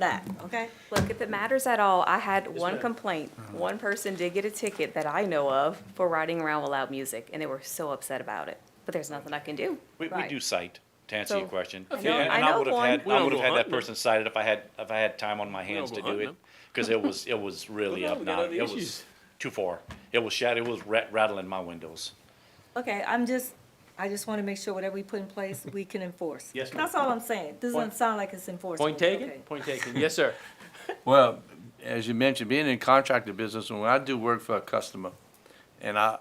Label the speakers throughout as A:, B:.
A: that, okay?
B: Look, if it matters at all, I had one
A: ma'am.
B: complaint. One person did get a ticket that I know of for riding around with loud music, and they were so upset about it. But there's nothing I can do.
C: We, we
A: Right.
C: do cite, to answer your
B: So-
C: question.
B: I
C: And-
B: know-
C: and
B: I know
C: would have
B: one.
C: had-
D: We
C: I
D: don't
C: would have
D: go
C: had that
D: hunting them.
C: person cited if I had, if I had time on my hands
D: don't
C: to
D: go
C: do
D: hunting
C: it.
D: them.
C: Because it was, it was really
D: no, we got
C: obnoxious.
D: other
C: It was
D: issues.
C: too far. It was shat, it was rat- rattling my windows.
A: Okay, I'm just, I just want to make sure whatever we put in place, we can enforce.
D: Yes, ma'am.
A: That's all I'm saying. This doesn't
D: Point-
A: sound like it's enforceable.
D: Point taken,
A: Okay.
D: point taken. Yes, sir.
E: Well, as you mentioned, being in contractor business, when I do work for a customer and I,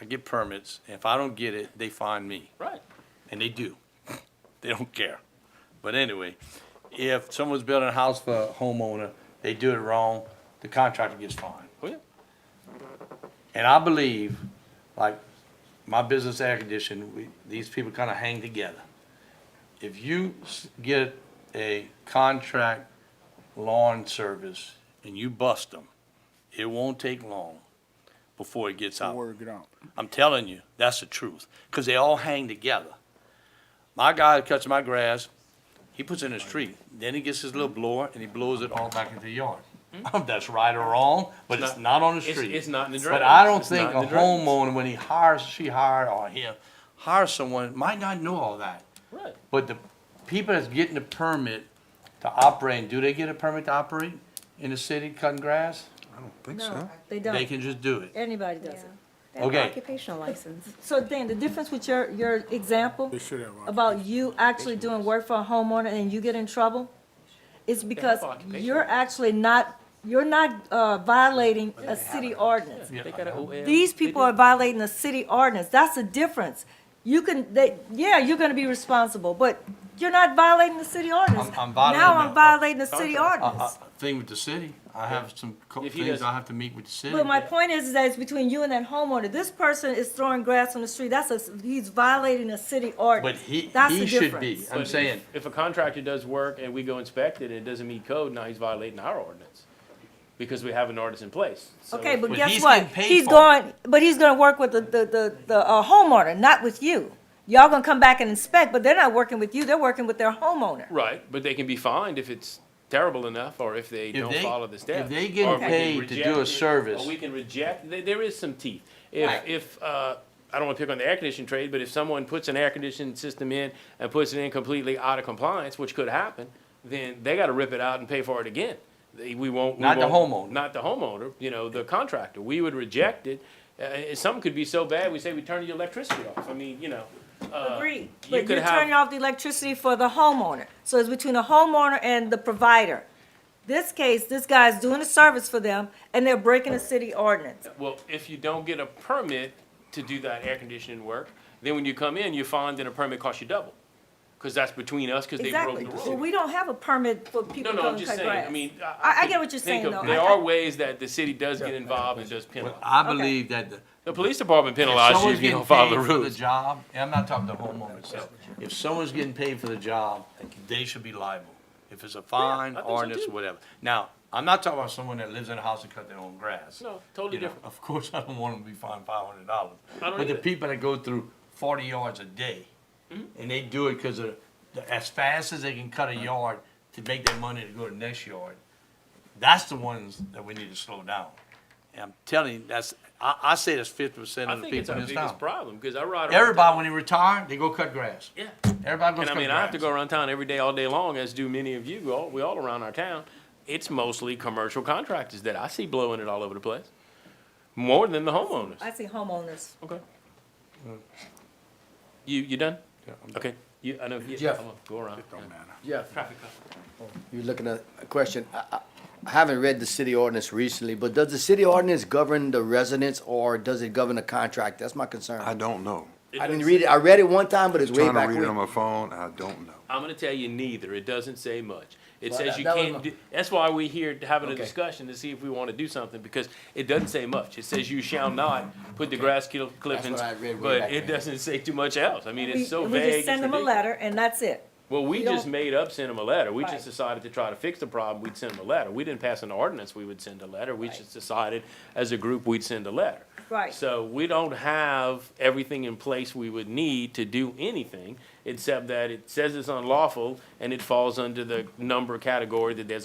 E: I get permits, if I don't get it, they find me.
D: Right.
E: And they do. They don't care. But anyway, if someone's building a house for a homeowner, they do it wrong, the contractor gets fined.
D: Oh, yeah.
E: And I believe, like, my business air conditioning, we, these people kinda hang together. If you s- get a contract lawn service and you bust them, it won't take long before it gets out.
F: Word get out.
E: I'm telling you, that's the truth, because they all hang together. My guy that cuts my grass, he puts it in his tree, then he gets his little blower and he blows it all back into the yard. That's right or wrong, but it's not on the
D: It's-
E: street.
D: it's not in the
E: But
D: drainage.
E: I don't
D: It's not
E: think
D: in
E: a
D: the drainage.
E: homeowner, when he hires, she hired or him, hires someone, might not know all that.
D: Right.
E: But the people that's getting the permit to operate, do they get a permit to operate in the city cutting grass?
F: Think
A: No,
F: so.
A: they
E: They
A: don't.
E: can just do it.
A: Anybody does it.
B: They have an
E: Okay.
B: Occupational license.
A: So Dan, the difference with your, your example
F: They should have. uh,
A: about you actually doing work for a homeowner and you get in trouble is because
D: occupational.
A: you're actually not, you're not uh, violating a city ordinance.
D: They got an OL.
A: These people are violating the city ordinance. That's the difference. You can, they, yeah, you're gonna be responsible, but you're not violating the city ordinance.
E: I'm- I'm violating
A: Now I'm
E: the-
A: violating the city
E: Uh, uh,
A: ordinance.
E: Thing with the city, I have some co-
D: If he
E: things
D: doesn't-
E: I have to meet with the city.
A: But my point is, is that it's between you and that homeowner. This person is throwing grass on the street. That's a, he's violating a city
E: But
A: ordinance.
E: he,
A: That's
E: he
A: the
E: should be,
A: difference.
E: I'm
D: But
E: saying,
D: if- If a contractor does work and we go inspect it and it doesn't meet code, now he's violating our ordinance. Because we have an ordinance in place. So
A: Okay, but
E: But
A: guess
E: he's
A: what?
E: getting paid
A: He's
E: for it.
A: going, but he's gonna work with the, the, the, the uh, homeowner, not with you. Y'all gonna come back and inspect, but they're not working with you. They're working with their homeowner.
D: Right, but they can be fined if it's terrible enough or if they
E: If
D: don't
E: they-
D: follow the steps.
E: if they
D: Or
E: getting
D: we can
E: paid to do a
D: reject it, or
E: service.
D: We can reject, there, there is some teeth. If, if, uh, I don't wanna pick on the air conditioning trade, but if someone puts an air conditioning system in and puts it in completely out of compliance, which could happen, then they gotta rip it out and pay for it again. They- We won't. we
E: Not the
D: won't-
E: homeowner.
D: Not the homeowner, you know, the contractor. We would reject it. Uh, and some could be so bad, we say we turn your electricity off. I mean, you know. uh,
A: Agreed,
D: you
A: but
D: could
A: you're
D: have-
A: turning off the electricity for the homeowner. So it's between the homeowner and the provider. This case, this guy's doing a service for them and they're breaking a city ordinance.
D: Well, if you don't get a permit to do that air conditioning work, then when you come in, you find that a permit costs you double. Because that's between us, because they broke
A: Exactly.
D: the
A: Well,
D: rule.
A: we don't have a permit for
D: No,
A: people to
D: no,
A: come
D: I'm
A: and
D: just
A: cut
D: saying, I
A: grass.
D: mean.
A: I- I get what you're
D: think
A: saying,
D: of-
A: though.
D: There
A: I-
D: are ways that the city does get involved and does penalize.
E: I believe that the.
D: The police department
E: if
D: penalizes you
E: someone's
D: if you
E: getting
D: don't follow
E: paid
D: the
E: for the
D: rules.
E: job, and I'm not talking to the homeowner itself, if someone's getting paid for the job, they should be liable. If it's a fine,
D: I think so
E: ordinance,
D: too.
E: whatever. Now, I'm not talking about someone that lives in a house and cut their own grass.
D: No, totally
E: You know,
D: different.
E: Of course, I don't want them to be fined five hundred dollars.
D: I don't
E: But the
D: either. Mm-hmm.
E: people that go through forty yards a day, and they do it because of, the- as fast as they can cut a
D: Uh-huh.
E: yard to make their money to go to the next yard, that's the ones that we need to slow down. And I'm telling you, that's, I, I say that's fifty percent
D: I
E: of the
D: think it's
E: people
D: our
E: in this town.
D: biggest problem, because I ride. around
E: Everybody,
D: town-
E: when they retire, they go cut grass.
D: Yeah.
E: Everybody goes
D: And I
E: cut
D: mean, I have to go
E: grass.
D: around town every day, all day long, as do many of you, we all, we all around our town. It's mostly commercial contractors that I see blowing it all over the place, more than the homeowners.
A: I see homeowners.
D: Okay. You, you done? Okay, you, I know, yeah,
G: Jeff.
D: I'm gonna go around.
F: Don't matter.
G: Yeah, Oh, you're looking at a question. I, I- I haven't read the city ordinance recently, but does the city ordinance govern the residents or does it govern the contract? That's my concern.
F: I don't know.
G: I didn't read it. I read it one time, but it's way
F: Trying to
G: back
F: read it on
G: when.
F: my phone, I don't know.
D: I'm gonna tell you neither, it doesn't say much. It
G: Well,
D: says
G: that-
D: you
G: that was
D: can't
G: my-
D: do, that's why we're here to having a
G: Okay.
D: discussion to see if we wanna do something, because it doesn't say much. It says you shall not put the grass kill clippings,
G: I read
D: but
G: way back
D: it
G: then.
D: doesn't say too much else. I mean,
A: We-
D: it's so
A: We
D: vague.
A: just
D: it's
A: send them a
D: ridiculous.
A: letter and that's it.
D: Well, we
A: We
D: just
A: don't-
D: made up send them a letter. We
A: Right.
D: just decided to try to fix the problem, we'd send them a letter. We didn't pass an ordinance, we would send a letter. We just decided as a group, we'd send a letter.
A: Right.
D: So we don't have everything in place we would need to do anything, except that it says it's unlawful and it falls under the number category that there's a